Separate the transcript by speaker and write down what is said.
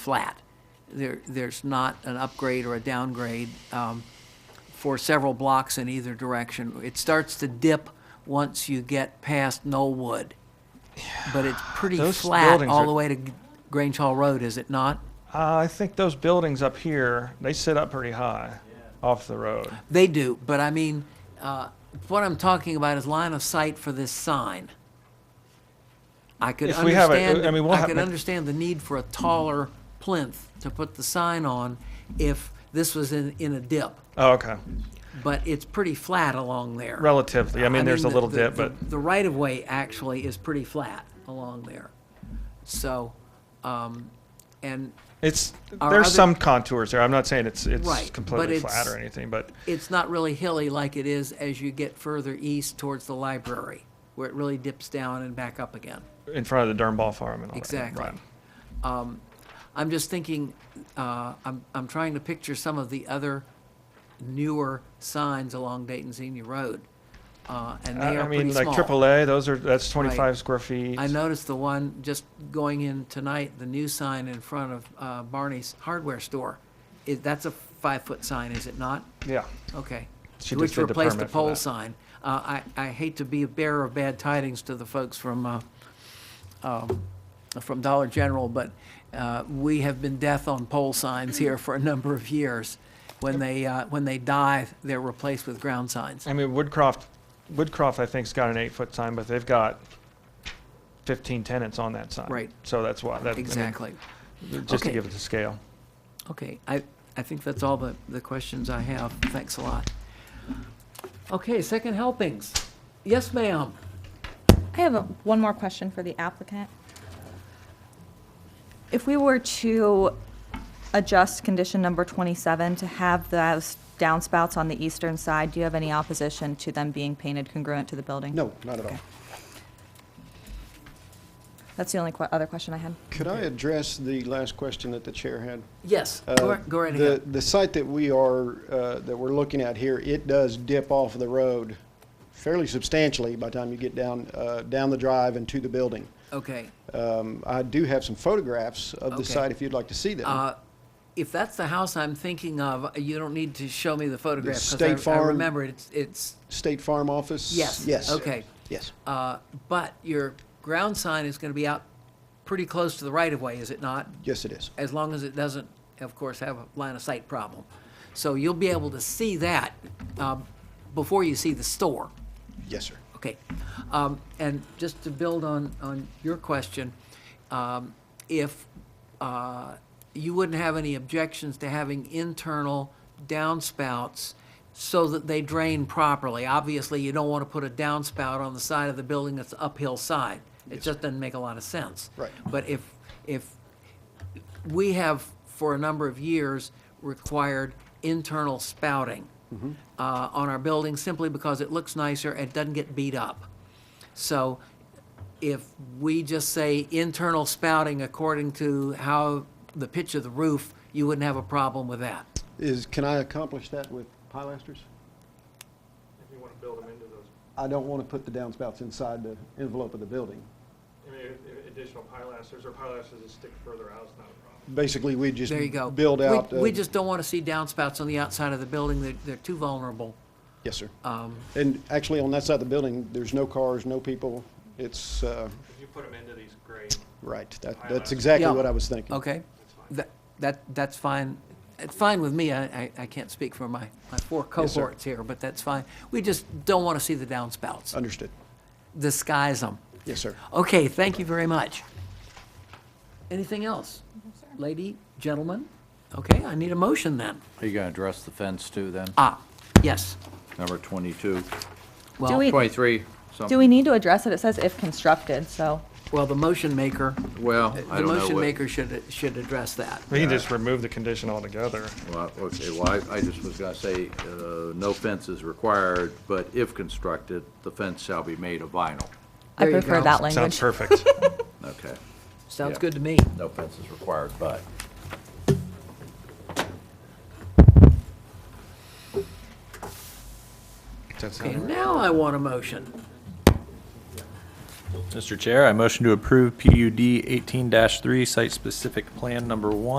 Speaker 1: flat. There, there's not an upgrade or a downgrade um, for several blocks in either direction. It starts to dip once you get past Knollwood, but it's pretty
Speaker 2: Those
Speaker 1: flat
Speaker 2: buildings
Speaker 1: all
Speaker 2: are-
Speaker 1: the way to G- Grange Hall Road, is it not?
Speaker 2: Uh, I think those buildings up here, they sit up pretty high off the road.
Speaker 1: They do, but I mean, uh, what I'm talking about is line of sight for this sign. I could
Speaker 2: If we have a- uh,
Speaker 1: understand,
Speaker 2: I mean, we'll
Speaker 1: I
Speaker 2: have-
Speaker 1: could understand the need for a taller plinth to put the sign on if this was in, in a dip,
Speaker 2: Oh, okay.
Speaker 1: but it's pretty flat along there.
Speaker 2: Relatively. I mean, there's a
Speaker 1: the-
Speaker 2: little
Speaker 1: the-
Speaker 2: dip,
Speaker 1: the-
Speaker 2: but
Speaker 1: The right-of-way actually is pretty flat along there. So, um, and
Speaker 2: it's,
Speaker 1: Our
Speaker 2: there's
Speaker 1: other-
Speaker 2: some contours there. I'm not saying it's,
Speaker 1: Right,
Speaker 2: it's
Speaker 1: but
Speaker 2: completely flat
Speaker 1: it's-
Speaker 2: or anything, but
Speaker 1: it's not really hilly like it is as you get further east towards the library, where it really dips down and back up again.
Speaker 2: in front of the Durnball Farm and all that.
Speaker 1: Exactly.
Speaker 2: Right.
Speaker 1: I'm just thinking, uh, I'm, I'm trying to picture some of the other newer signs along Dayton Senior Road, uh, and they
Speaker 2: I I
Speaker 1: are pretty
Speaker 2: mean, like
Speaker 1: small.
Speaker 2: AAA, those are, that's 25 square feet.
Speaker 1: I noticed the one just going in tonight, the new sign in front of uh, Barney's Hardware Store. Is, that's a five-foot sign, is it not?
Speaker 2: Yeah.
Speaker 1: Okay.
Speaker 2: She just
Speaker 1: Which
Speaker 2: did the
Speaker 1: replaced the
Speaker 2: permit for
Speaker 1: pole
Speaker 2: that.
Speaker 1: sign. Uh, I, I hate to be a bearer of bad tidings to the folks from, uh, um, from Dollar General, but uh, we have been death on pole signs here for a number of years. When they, uh, when they die, they're replaced with ground signs.
Speaker 2: I mean, Woodcroft, Woodcroft, I think's got an eight-foot sign, but they've got 15 tenants on that sign.
Speaker 1: Right.
Speaker 2: So that's why, that, I mean,
Speaker 1: Exactly.
Speaker 2: just to
Speaker 1: Okay.
Speaker 2: give it the scale.
Speaker 1: Okay, I, I think that's all the, the questions I have. Thanks a lot. Okay, second helpings. Yes, ma'am.
Speaker 3: I have a- one more question for the applicant. If we were to adjust condition number 27 to have those downspouts on the eastern side, do you have any opposition to them being painted congruent to the building?
Speaker 4: No, not at all.
Speaker 3: That's the only que- other question I had.
Speaker 4: Could I address the last question that the chair had?
Speaker 1: Yes,
Speaker 4: Uh,
Speaker 1: go right- go right ahead.
Speaker 4: The, the site that we are, uh, that we're looking at here, it does dip off of the road fairly substantially by the time you get down, uh, down the drive and to the building.
Speaker 1: Okay.
Speaker 4: Um, I do have some photographs of
Speaker 1: Okay.
Speaker 4: the site if you'd like to see them.
Speaker 1: Uh, If that's the house I'm thinking of, you don't need to show me the photograph. 'cause I-
Speaker 4: State
Speaker 1: I
Speaker 4: Farm-
Speaker 1: remember it. it's, it's,
Speaker 4: State Farm Office?
Speaker 1: Yes,
Speaker 4: Yes.
Speaker 1: okay.
Speaker 4: Yes.
Speaker 1: uh, but your ground sign is going to be out pretty close to the right-of-way, is it not?
Speaker 4: Yes, it is.
Speaker 1: As long as it doesn't, of course, have a line-of-sight problem. So you'll be able to see that um, before you see the store.
Speaker 4: Yes, sir.
Speaker 1: Okay, um, and just to build on, on your question, um, if, uh, you wouldn't have any objections to having internal downspouts so that they drain properly. Obviously, you don't want to put a downspout on the side of the building that's uphill side. It just doesn't make a lot of sense.
Speaker 4: Right.
Speaker 1: But if, if, we have, for a number of years, required internal spouting
Speaker 4: Mm-hmm.
Speaker 1: uh, on our building simply because it looks nicer and doesn't get beat up. So if we just say internal spouting according to how the pitch of the roof, you wouldn't have a problem with that.
Speaker 4: Is, can I accomplish that with pilasters?
Speaker 5: If you want to build them into those,
Speaker 4: I don't want to put the downspouts inside the envelope of the building.
Speaker 5: I mean, i- additional pilasters or pilasters that stick further out is not a problem.
Speaker 4: Basically, we just
Speaker 1: There you go.
Speaker 4: build
Speaker 1: We-
Speaker 4: out. uh,
Speaker 1: We just don't want to see downspouts on the outside of the building. They're, they're too vulnerable.
Speaker 4: Yes, sir.
Speaker 1: Um,
Speaker 4: And actually, on that side of the building, there's no cars, no people. It's, uh,
Speaker 5: If you put them into these gray,
Speaker 4: right, that,
Speaker 5: High rise.
Speaker 4: that's exactly
Speaker 1: Yeah.
Speaker 4: what I was thinking.
Speaker 1: Okay? That, that, that's fine. It's fine with me. I, I, I can't speak for my, my four
Speaker 4: Yes, sir.
Speaker 1: cohorts here, but that's fine. We just don't want to see the
Speaker 6: Uh,
Speaker 1: downspouts.
Speaker 4: Understood.
Speaker 1: Disguise them.
Speaker 4: Yes, sir.
Speaker 1: Okay, thank you very much. Anything else? Lady, gentlemen? Okay, I need a motion then.
Speaker 6: Are you going to address the fence too, then?
Speaker 1: Ah, yes.
Speaker 6: Number 22,
Speaker 3: Do
Speaker 1: Well,
Speaker 3: we,
Speaker 6: 23,
Speaker 3: do
Speaker 6: something.
Speaker 3: we need to address it? It says if constructed, so
Speaker 1: well, the motion maker,
Speaker 6: Well,
Speaker 1: the
Speaker 6: I don't know
Speaker 1: motion
Speaker 6: what-
Speaker 1: maker should, should address that.
Speaker 2: We can just remove the condition altogether.
Speaker 6: Well, okay, well, I- I just was going to say, uh, no fence is required, but if constructed, the fence shall be made of vinyl.
Speaker 3: I
Speaker 1: There you
Speaker 3: prefer
Speaker 1: go.
Speaker 3: that
Speaker 2: Sounds
Speaker 3: language.
Speaker 2: perfect.
Speaker 6: Okay.
Speaker 1: Sounds
Speaker 6: Yeah.
Speaker 1: good to me.
Speaker 6: No fence is required, but.
Speaker 2: That's
Speaker 1: Okay,
Speaker 2: not-
Speaker 1: now I want a motion.
Speaker 7: Mr. Chair, I motion to approve PUD 18-3 Site Specific Plan Number 1